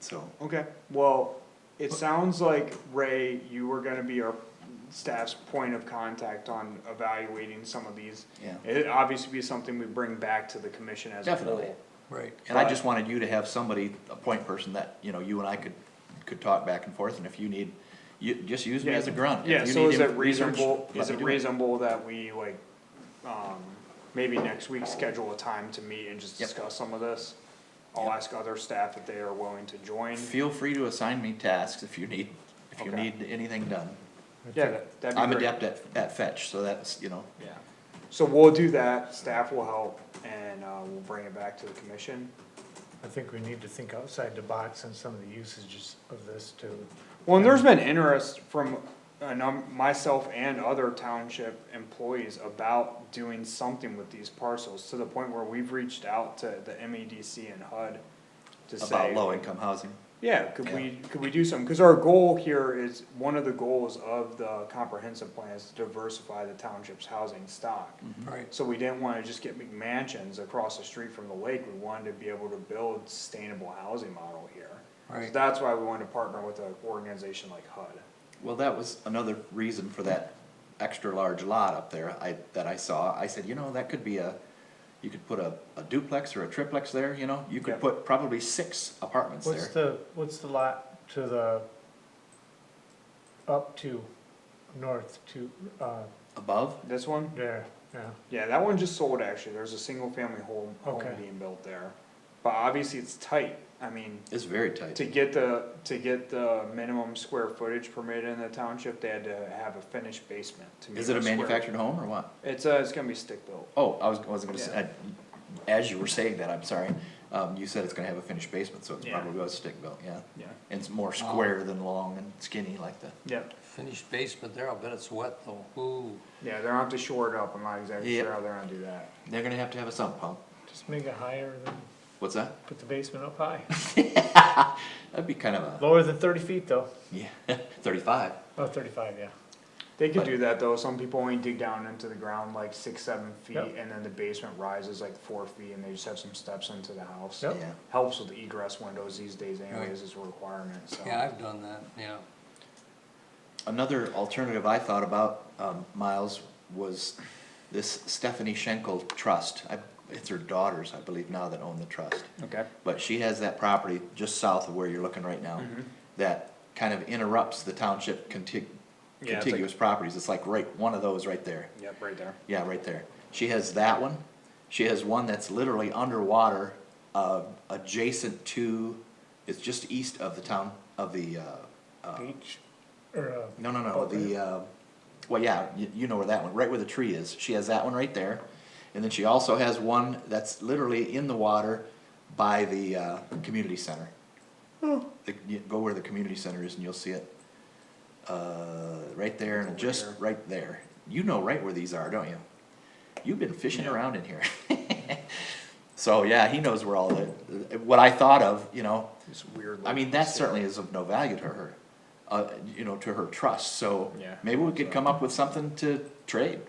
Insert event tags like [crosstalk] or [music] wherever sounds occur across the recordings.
So, okay, well, it sounds like, Ray, you were gonna be our staff's point of contact on evaluating some of these. Yeah. It'd obviously be something we bring back to the commission as a whole. Definitely. Right. And I just wanted you to have somebody, a point person that, you know, you and I could, could talk back and forth, and if you need, you, just use me as a grunt. If Yeah, you so need is it inf- research, reasonable, let is me it do reasonable that we like, um, maybe next week schedule a time to meet and just Yep. discuss some of this? I'll Yep. ask other staff if they are willing to join. Feel free to assign me tasks if you need, if you Okay. need anything done. Yeah, that- that'd be great. I'm adept at, at fetch, so that's, you know, Yeah, so we'll do that, staff will help, and, uh, we'll bring it back to the commission. I think we need to think outside the box on some of the usages of this too. Well, and there's been interest from a num- myself and other township employees about doing something with these parcels, to the point where we've reached out to the MEDC and HUD to about say, low income housing. yeah, could we, could we do something? Cause our goal here is, one of the goals of the comprehensive plan is to diversify the township's housing stock. Right. So we didn't wanna just get McMansions across the street from the lake, we wanted to be able to build sustainable housing model here. So Right. that's why we wanted to partner with an organization like HUD. Well, that was another reason for that extra large lot up there I, that I saw. I said, you know, that could be a, you could put a, a duplex or a triplex there, you know? You Yeah. could put probably six apartments What's there. the, what's the lot to the, up to, north to, uh, Above, This one? there, yeah, Yeah, that one just sold actually, there's a single family home, home Okay. being built there. But obviously it's tight, I mean, it's very tight. to get the, to get the minimum square footage permit in the township, they had to have a finished basement to meet Is it a the square- manufactured home or what? It's, uh, it's gonna be stick built. Oh, I was, wasn't gonna say, I- as you were saying that, I'm sorry, um, you said it's gonna have a finished basement, so it Yeah. Oh. probably was stick built, yeah. Yeah. And it's more square than long and skinny like the, Yep, Finished basement there, I'll bet it's wet though. Ooh, yeah, they're gonna have to shore it up, I'm not exactly Yep. sure how they're gonna do that. they're gonna have to have a sump pump. just make it higher than, What's that? put the basement up high, That'd be kind of a, lower than thirty feet though, yeah, [laughs] thirty-five. oh, thirty-five, yeah. They could But- do that though, some people only dig down into the ground like six, seven feet, Yep. and then the basement rises like four feet, and they just have some steps into the house. Yep. Yeah. Helps with the egress windows these days anyways, Right. is a requirement, so. yeah, I've done that, yeah. Another alternative I thought about, um, Miles, was this Stephanie Schenkel Trust. I, it's her daughters, I believe, now that own the trust. Okay. But she has that property just south of where you're looking right now, Mm-hmm. that kind of interrupts the township contig- Yeah, it's like- contiguous properties. It's like right, one of those right there. Yep, right there. Yeah, right there. She has that one. She has one that's literally underwater, uh, adjacent to, it's just east of the town, of the, uh, uh, Beach, or, uh, no, no, no, Okay. the, uh, well, yeah, you, you know where that one, right where the tree is, she has that one right there. And then she also has one that's literally in the water by the, uh, community center. The- you Go where the community center is and you'll see it, uh, right there Over and just here. right there. You know right where these are, don't you? You've been fishing around in here. [laughs] So, yeah, he knows where all the, what I thought of, you know, It's weird. I mean, looking that city. certainly is of no value to her, uh, you know, to her trust, so Yeah. maybe we could come up with something to trade.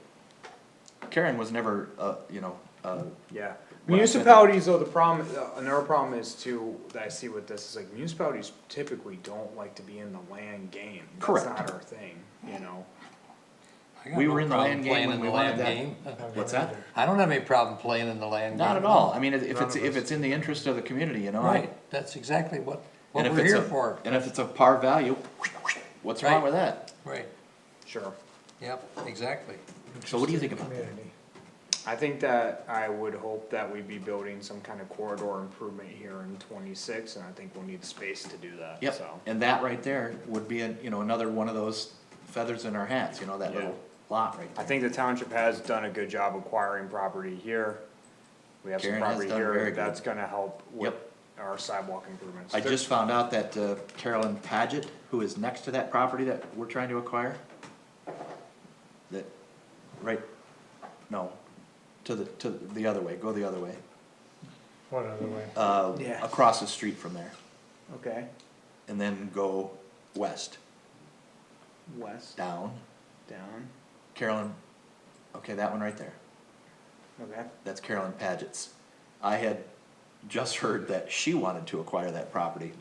Karen was never, uh, you know, uh, Yeah, When I said that- municipalities though, the problem, uh, another problem is too, that I see with this, is like municipalities typically don't like to be in the land game. Correct. That's not our thing, you know? I got We no were in the problem land game playing when in we the wanted land game. [laughs] what's that? I don't have any problem playing in the land game. Not at all, I mean, if- if None it's, of if us. it's in the interest of the community, you know, I. Right, that's exactly what, and what if we're it's here a- for. And if it's of par value, what's wrong Right. with that? Right, Sure. yep, exactly. So what do you think about that? community. I think that I would hope that we'd be building some kind of corridor improvement here in twenty-six, and I think we'll need space to do that, so. Yep, and that right there would be, a- you know, another one of those feathers in our hats, you know, that Yeah. little lot right I there. think the township has done a good job acquiring property here. We have some Karen has property done very here, good. that's gonna help with Yep. our sidewalk improvements. I just found out that uh, Carolyn Paget, who is next to that property that we're trying to acquire, that, right, no, to the, to the other way, go the other way, What other way? uh, Yeah. across the street from there, Okay, and then go west, west, down, down, Carolyn, okay, that one right there, okay. that's Carolyn Paget's. I had just heard that she wanted to acquire that property